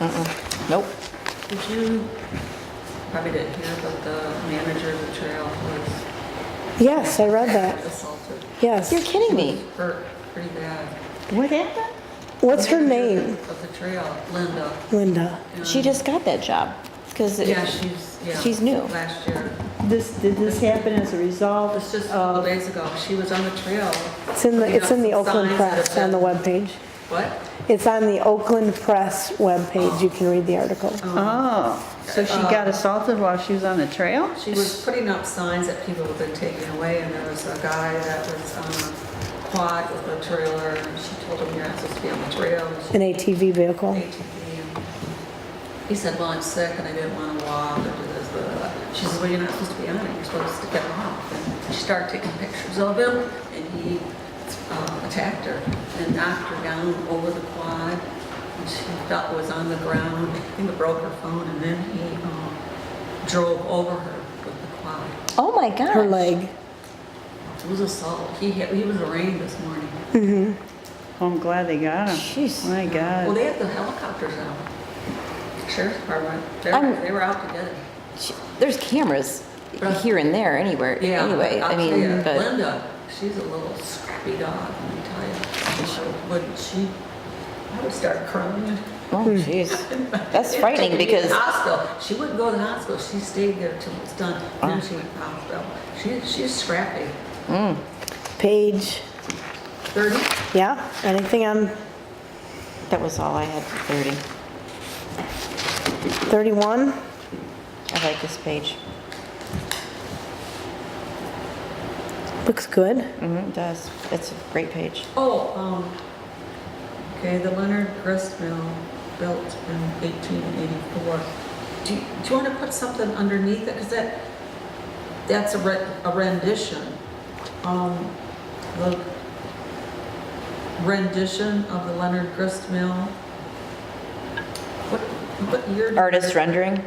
Uh-uh. Nope. Did you, probably didn't hear, but the manager of the trail was Yes, I read that. assaulted. Yes. You're kidding me. Hurt pretty bad. What happened? What's her The name? manager Of the trail, Linda. Linda. She just got that job because Yeah, she's, yeah. She's new. Last year. This, did this happen as a result It's just a couple of, days ago. She was on the trail. It's in the, it's in the Putting up Oakland signs Press that on the said- webpage. What? It's on the Oakland Press webpage. You can read the article. oh, so she got assaulted while she was on the trail? She was putting up signs that people had been taking away, and there was a guy that was on a quad with a trailer, and she told him, you're not supposed to be on the trail. and she- An ATV vehicle. ATV, and He said, well, I'm sick and I didn't want to walk or do this, blah, blah, blah. She says, well, you're not supposed to be on it, you're supposed to get off. And she started taking pictures of him, and he uh, attacked her and knocked her down over the quad. And she felt was on the ground, I think it broke her phone, and then he um, drove over her with the quad. Oh my gosh. Her leg. It was assault. He, hit- he was arraigned this morning. I'm glad they got him. Jeez. My Well, God. they had the helicopters out. Sheriff's Department, they I'm- were- they were out together. She, there's cameras here and there anywhere. Yeah. anyway, I'll I mean, tell you, but Linda, she's a little scrappy dog, let me tell you. She Wouldn't she, I would start crying. oh jeez, that's They'd frightening take me to the because Hospital, she wouldn't go to the hospital, she stayed there till it was done, Uh-huh. then she went to the hospital. She, she's scrappy. Page. Thirty, Yeah. Anything on that was all I had for 30. 31? I like this page. Looks good. Mm-hmm, it does. It's a great page. oh, um, okay, the Leonard Grist Mill built in eighteen eighty-four. Do, you- do you wanna put something underneath it, cause that, that's a re- a rendition. Um, the rendition of the Leonard Grist Mill. What, what year? did- Artist rendering.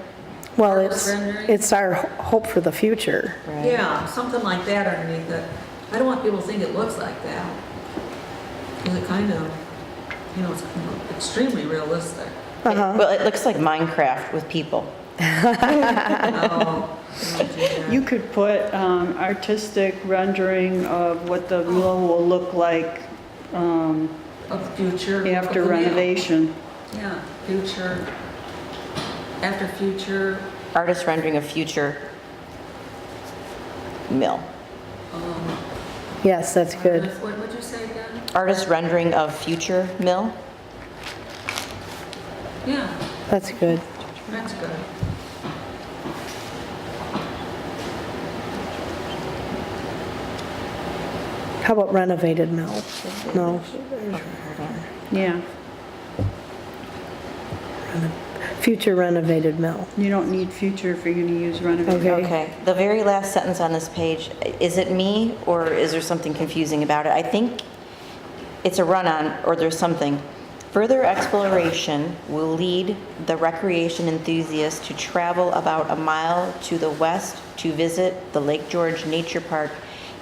Well, Artist it's, rendering? it's our hope for the future. Right. Yeah, something like that underneath it. I don't want people to think it looks like that. 'Cause it kind of, you know, it's extremely realistic. Uh-huh. Well, it looks like Minecraft with people. Oh, I don't do that. You could put um, artistic rendering of what the mill will look like um, Of the future. of after the mill. renovation. Yeah, future, after future, Artist rendering of future mill. um, Yes, that's good. What would you say again? Artist rendering of future mill. Yeah, That's good. that's good. How about renovated mill? No. Yeah, Future renovated mill. you don't need future if you're gonna use renovation. Okay. Okay, the very last sentence on this page, is it me or is there something confusing about it? I think it's a run-on or there's something. Further exploration will lead the recreation enthusiast to travel about a mile to the west to visit the Lake George Nature Park.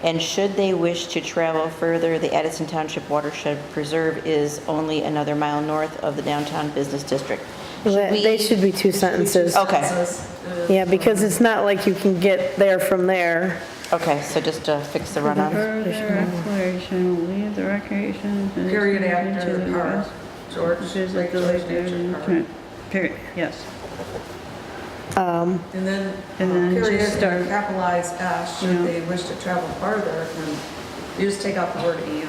And should they wish to travel further, the Addison Township Watershed Preserve is only another mile north of the downtown business district. They they should be two sentences. Okay. Says, uh, Yeah, because it's not like you can get there from there. Okay, so just to fix the run-on. Further exploration will lead the recreation. Period into after the park, George, Lake Visit the George lake Nature Park. area. Period, yes. And then, uh, And then period, just start- and capitalize S, Yeah. should they wish to travel farther, and you just take out the word and.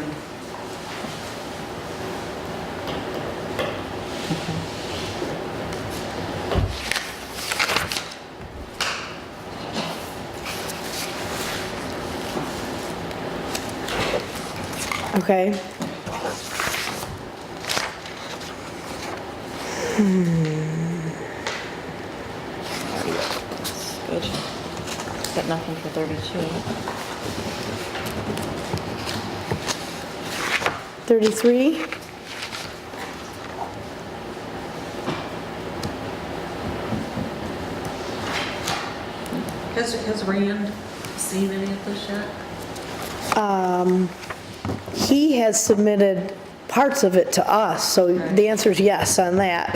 Okay. Good. Got nothing for 32. 33? Has, has Rand seen any of this yet? Um, He has submitted parts of it to us, so the answer is yes on that.